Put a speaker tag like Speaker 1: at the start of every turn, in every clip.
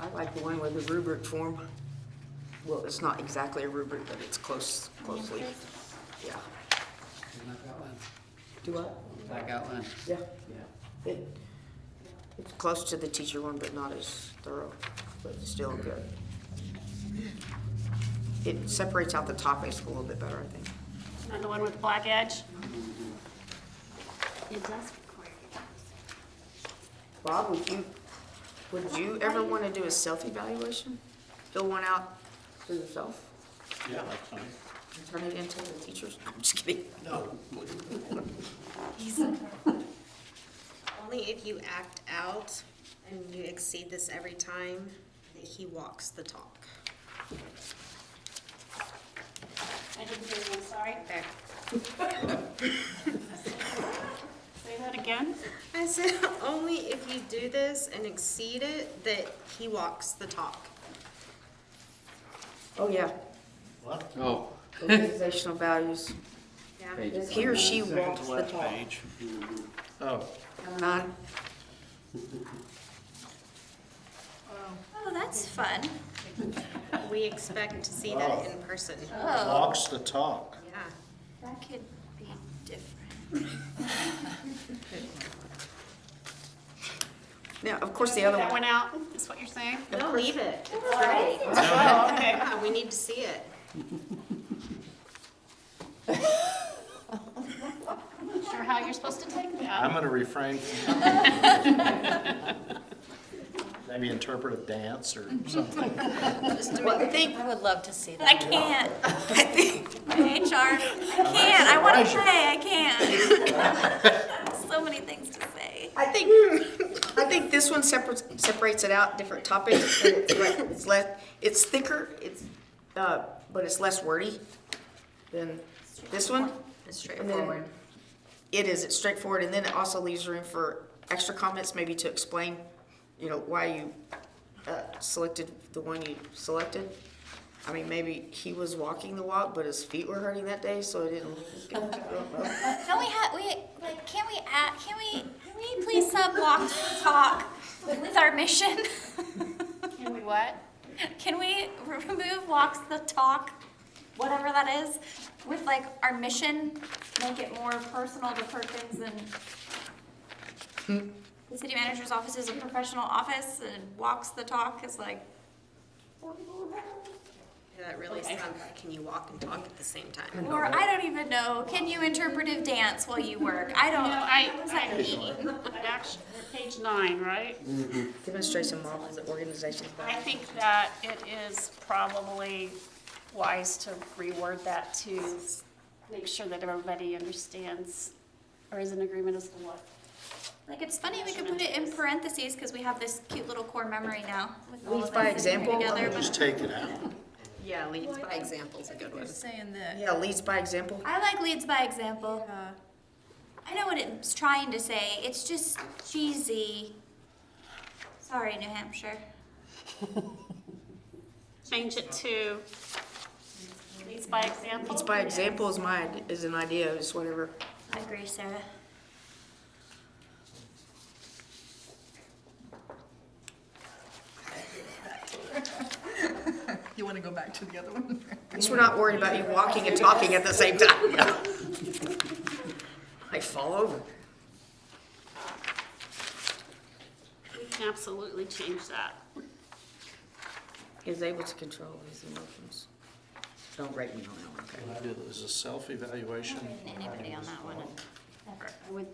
Speaker 1: I like the one with the rubric form. Well, it's not exactly a rubric, but it's close, closely. Yeah.
Speaker 2: And I've got one.
Speaker 1: Do I?
Speaker 2: I got one.
Speaker 1: Yeah.
Speaker 2: Yeah.
Speaker 1: It, it's close to the teacher one, but not as thorough, but it's still good. It separates out the topics a little bit better, I think.
Speaker 3: Not the one with black edge?
Speaker 4: It does require it.
Speaker 1: Bob, would you, would you ever want to do a self-evaluation? Fill one out for yourself?
Speaker 2: Yeah, that's fine.
Speaker 1: and Turn it into the teachers? I'm just kidding.
Speaker 2: No.
Speaker 4: Only if you act out and you exceed this every time that he walks the talk.
Speaker 3: I didn't hear you, I'm sorry.
Speaker 4: Okay.
Speaker 3: Say that again?
Speaker 4: I said only if you do this and exceed it that he walks the talk.
Speaker 1: Oh, yeah.
Speaker 2: What?
Speaker 5: Oh,
Speaker 1: Organizational values.
Speaker 4: Yeah.
Speaker 5: Page.
Speaker 1: He or she walks the talk.
Speaker 5: oh,
Speaker 1: None.
Speaker 6: Oh, that's fun.
Speaker 4: We expect to see that in person.
Speaker 6: Oh,
Speaker 7: Walks the talk.
Speaker 4: Yeah.
Speaker 6: that could be different.
Speaker 1: Now, of course, the other
Speaker 3: That
Speaker 1: one,
Speaker 3: went out, is what you're saying?
Speaker 4: No, leave it.
Speaker 3: Oh, okay.
Speaker 4: Yeah, we need to see it.
Speaker 3: Sure how you're supposed to take
Speaker 7: I'm
Speaker 3: that.
Speaker 7: gonna refrain from. Maybe interpret a dance or something.
Speaker 1: well, I think,
Speaker 6: I would love to see that. I can't. HR, I can't. I want to play, I can't. So many things to say.
Speaker 1: I think, I think this one separates, separates it out, different topics, and it's le- it's less, it's thicker, it's, uh, but it's less wordy than this one.
Speaker 4: It's
Speaker 1: And then
Speaker 4: straightforward.
Speaker 1: It is, it's straightforward, and then it also leaves room for extra comments, maybe to explain, you know, why you, uh, selected the one you selected. I mean, maybe he was walking the walk, but his feet were hurting that day, so it didn't, I don't know.
Speaker 6: Don't we have, we, like, can we add, can we, can we please sub walk to talk with our mission?
Speaker 3: Can we what?
Speaker 6: Can we remove walks the talk, whatever that is, with like our mission, make it more personal to Perkins and
Speaker 1: Hmm.
Speaker 6: the city manager's office is a professional office and walks the talk is like,
Speaker 4: Yeah, That really sounds like, can you walk and talk at the same time?
Speaker 6: or I don't even know, can you interpretive dance while you work? I don't,
Speaker 3: No, I,
Speaker 6: what does that
Speaker 3: I,
Speaker 6: mean?
Speaker 3: I actually, page nine, right?
Speaker 1: Demonstrates and models the organization's
Speaker 3: I
Speaker 1: values.
Speaker 3: think that it is probably wise to reword that to make sure that everybody understands or is in agreement as to what.
Speaker 6: Like, it's funny, we could put it in parentheses because we have this cute little core memory now. with all
Speaker 1: Lead
Speaker 6: of
Speaker 1: by
Speaker 6: us sitting here
Speaker 1: example.
Speaker 6: together, but-
Speaker 7: Just take it out.
Speaker 4: Yeah, leads by example is a good one.
Speaker 1: Yeah, leads by example.
Speaker 6: I like leads by example. I know what it's trying to say. It's just cheesy. Sorry, New Hampshire.
Speaker 3: Change it to leads by example.
Speaker 1: Leads by example is my, is an idea, is whatever.
Speaker 6: I agree, Sarah.
Speaker 8: You want to go back to the other one?
Speaker 1: At least we're not worried about you walking and talking at the same time. Like fall over.
Speaker 3: We can absolutely change that.
Speaker 1: Is able to control his emotions. Don't break me on that one, okay?
Speaker 7: It is a self-evaluation.
Speaker 6: Anybody on that one?
Speaker 3: I would,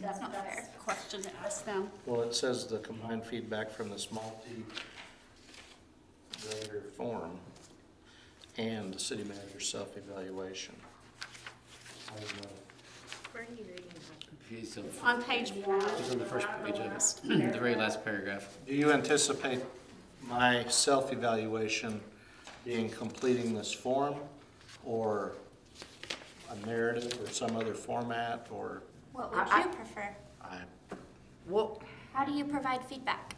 Speaker 3: that's not fair. Question to ask them.
Speaker 7: Well, it says the combined feedback from this multi-grader form and the city manager's self-evaluation. I don't know.
Speaker 4: Where are you reading
Speaker 5: okay, so it's
Speaker 3: On page one.
Speaker 5: on the first page of it, the very last paragraph.
Speaker 7: Do you anticipate my self-evaluation being completing this form or a narrative or some other format or
Speaker 6: What would you prefer?
Speaker 7: I,
Speaker 1: Well,
Speaker 6: How do you provide feedback?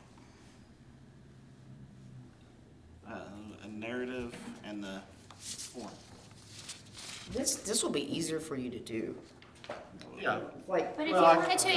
Speaker 9: a narrative and the form.
Speaker 1: this, this will be easier for you to do.
Speaker 7: yeah.
Speaker 1: Like,
Speaker 6: But if you
Speaker 7: Well, I-
Speaker 6: wanted to